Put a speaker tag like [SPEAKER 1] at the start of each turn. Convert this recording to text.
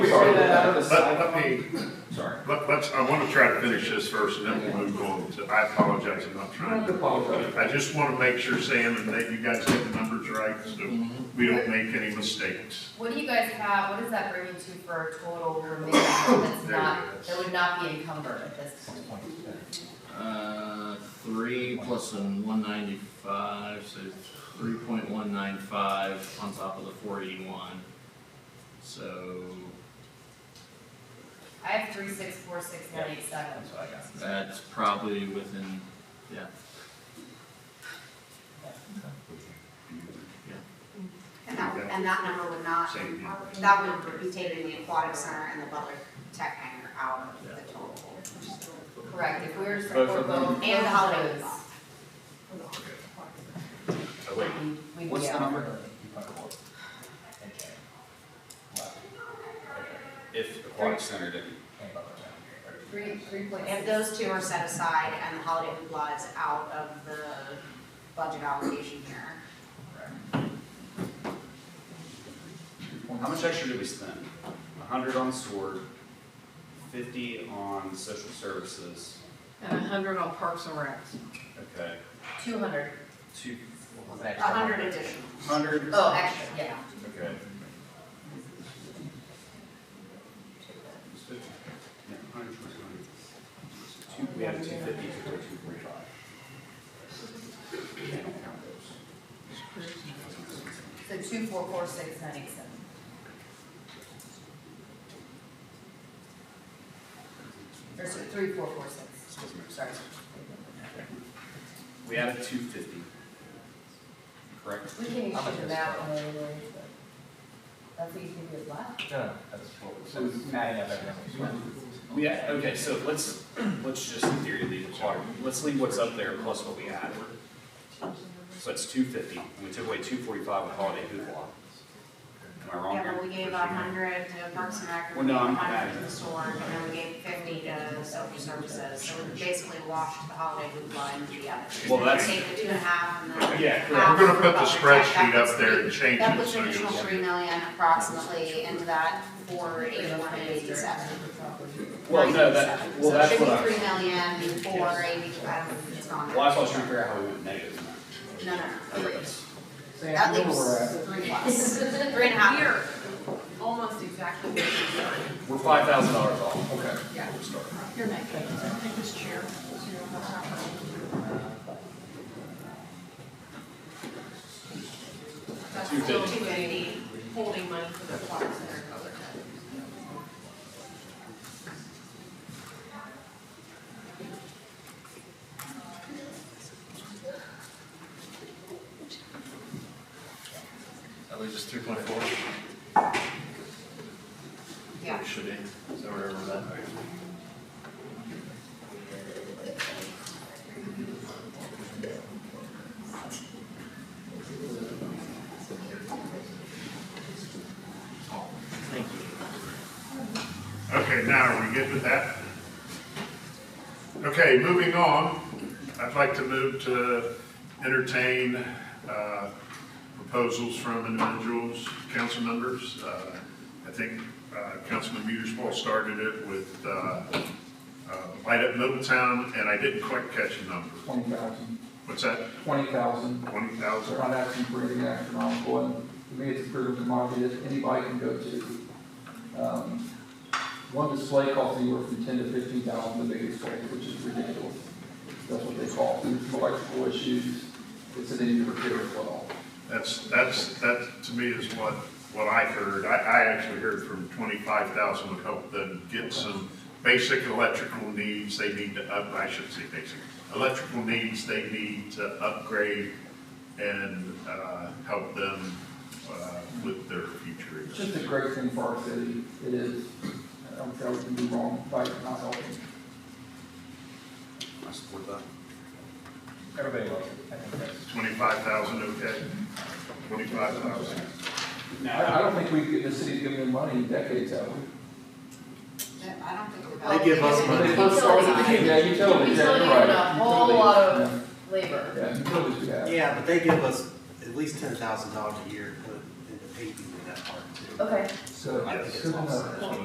[SPEAKER 1] Sorry, that out of the
[SPEAKER 2] Let, let
[SPEAKER 1] side.
[SPEAKER 2] me,
[SPEAKER 1] Sorry.
[SPEAKER 2] let, let's, I want to try to finish this first and then we'll move on to, I apologize, I'm not
[SPEAKER 1] I
[SPEAKER 2] trying to.
[SPEAKER 1] apologize.
[SPEAKER 2] I just want to make sure, Sam, and that you guys get the numbers right, so we don't make any mistakes.
[SPEAKER 3] What do you guys have, what does that bring you to for a total remaining that's not, that would not be encumbered at this point?
[SPEAKER 4] Uh, three plus a one ninety-five, so three point one nine five on top of the four eighty-one. So
[SPEAKER 3] I have three, six, four, six, one, eight, seven.
[SPEAKER 1] That's what I got.
[SPEAKER 4] that's probably within, yeah,
[SPEAKER 5] And that, and that number would not,
[SPEAKER 2] Same here.
[SPEAKER 5] that would be taking the aquatic center and the Butler Tech Hanger out of the total.
[SPEAKER 3] Correct, if we were to
[SPEAKER 1] Both
[SPEAKER 3] support
[SPEAKER 1] of them?
[SPEAKER 3] both.
[SPEAKER 5] And the holiday
[SPEAKER 3] those,
[SPEAKER 5] ball.
[SPEAKER 1] Oh, wait,
[SPEAKER 3] we- we'd
[SPEAKER 1] what's
[SPEAKER 3] be
[SPEAKER 1] the
[SPEAKER 3] out.
[SPEAKER 1] number? If
[SPEAKER 3] aquatic
[SPEAKER 1] center didn't.
[SPEAKER 3] Three, three point
[SPEAKER 5] If
[SPEAKER 3] six.
[SPEAKER 5] those two are set aside and the holiday hoopla is out of the budget allocation here,
[SPEAKER 6] How much extra did we spend? A hundred on sword, fifty on social services,
[SPEAKER 7] and a hundred on Parks and Recs.
[SPEAKER 6] okay,
[SPEAKER 3] Two hundred.
[SPEAKER 6] two,
[SPEAKER 5] a hundred additional.
[SPEAKER 6] hundred,
[SPEAKER 3] Oh, extra, yeah.
[SPEAKER 6] okay. Yeah, 100, 100. Two, we had a two fifty, two forty, two forty-five. I don't count those.
[SPEAKER 3] So two, four, four, six, nine, eight, seven. Or so three, four, four, six, sorry.
[SPEAKER 6] We had a two fifty. Correct?
[SPEAKER 3] We can
[SPEAKER 1] How much
[SPEAKER 3] issue
[SPEAKER 1] is
[SPEAKER 3] that
[SPEAKER 1] it?
[SPEAKER 3] one anyway, but that's what you can do with black.
[SPEAKER 1] No, that's what, so adding up everything.
[SPEAKER 6] Yeah, okay, so let's, let's just in theory leave the water, let's leave what's up there plus what we add. So it's two fifty, and we took away two forty-five with holiday hoopla. Am I wrong here?
[SPEAKER 5] Yeah, but we gave a hundred to Parks and Rec,
[SPEAKER 6] Well,
[SPEAKER 5] we
[SPEAKER 6] no,
[SPEAKER 5] gave a
[SPEAKER 6] I'm-
[SPEAKER 5] hundred to the store, and then we gave fifty to social services, so we basically washed the holiday hoopla into the other.
[SPEAKER 6] Well, that's-
[SPEAKER 5] Take the two and a half and the.
[SPEAKER 6] Yeah, correct.
[SPEAKER 5] half
[SPEAKER 2] We're gonna put the
[SPEAKER 5] for Butler Tech,
[SPEAKER 2] spreadsheet
[SPEAKER 5] that puts
[SPEAKER 2] up there
[SPEAKER 5] three-
[SPEAKER 2] and change
[SPEAKER 5] That
[SPEAKER 2] it
[SPEAKER 5] puts
[SPEAKER 2] so
[SPEAKER 5] an
[SPEAKER 2] you'll.
[SPEAKER 5] additional three million approximately into that four eighty-one eighty-seven.
[SPEAKER 6] Well, no, that, well, that's what I,
[SPEAKER 5] Should be three million, four eighty, I don't, it's gone.
[SPEAKER 6] well, that's what I was trying to figure out how we went negative. in that.
[SPEAKER 5] No, no, no, three.
[SPEAKER 1] Sam,
[SPEAKER 5] That
[SPEAKER 1] you know where we're at.
[SPEAKER 5] leaves three plus, three and a half.
[SPEAKER 7] We are almost exactly where we started.
[SPEAKER 6] We're five thousand dollars off.
[SPEAKER 1] Okay.
[SPEAKER 7] Yeah.
[SPEAKER 6] We're starting.
[SPEAKER 7] Here, Nick, can I take this chair? so you don't have to- That's
[SPEAKER 6] Two
[SPEAKER 7] still
[SPEAKER 6] fifty.
[SPEAKER 7] too many holding money for the Parks and Rec other than.
[SPEAKER 4] that leaves us three point four.
[SPEAKER 5] Yeah.
[SPEAKER 4] It should be, so we're over that.
[SPEAKER 2] Okay, now are we good with that? Okay, moving on, I'd like to move to entertain uh, proposals from individuals, council members. Uh, I think uh, Councilman Muersfall started it with uh, uh, Light Up Middletown, and I didn't quite catch the number.
[SPEAKER 8] twenty thousand,
[SPEAKER 2] What's that,
[SPEAKER 8] twenty thousand,
[SPEAKER 2] 20,000?
[SPEAKER 8] so not asking for anything astronomical, and to me, it's a critical commodity that anybody can go to. Um, One display costs anywhere from ten to fifteen thousand, the biggest display, which is ridiculous, that's what they call, it. There's electrical issues, it's an need to repair as well.
[SPEAKER 2] That's, that's, that to me is what, what I heard. I, I actually heard from twenty-five thousand would help them get some basic electrical needs they need to up, I shouldn't say basic, electrical needs they need to upgrade and, uh, help them, uh, with their future.
[SPEAKER 8] It's just a great thing for our city, it is, I don't care what can be wrong, by not helping.
[SPEAKER 6] I support that.
[SPEAKER 1] Everybody loves it, I think that's.
[SPEAKER 2] Twenty-five thousand, okay? Twenty-five thousand.
[SPEAKER 8] I, I don't think we, the city's given them money in decades, have we?
[SPEAKER 5] I don't think we're.
[SPEAKER 3] They give us money.
[SPEAKER 8] They both started with the- Yeah, utilities, yeah,
[SPEAKER 3] Utilities
[SPEAKER 8] you're right.
[SPEAKER 3] and a whole
[SPEAKER 8] Utilities,
[SPEAKER 3] lot of-
[SPEAKER 8] yeah.
[SPEAKER 3] Labor.
[SPEAKER 8] Yeah, utilities, yeah.
[SPEAKER 9] Yeah, but they give us at least ten thousand dollars a year to put into paving in that part too.
[SPEAKER 3] Okay.
[SPEAKER 8] So,
[SPEAKER 9] I think it's
[SPEAKER 8] good enough.
[SPEAKER 9] offset.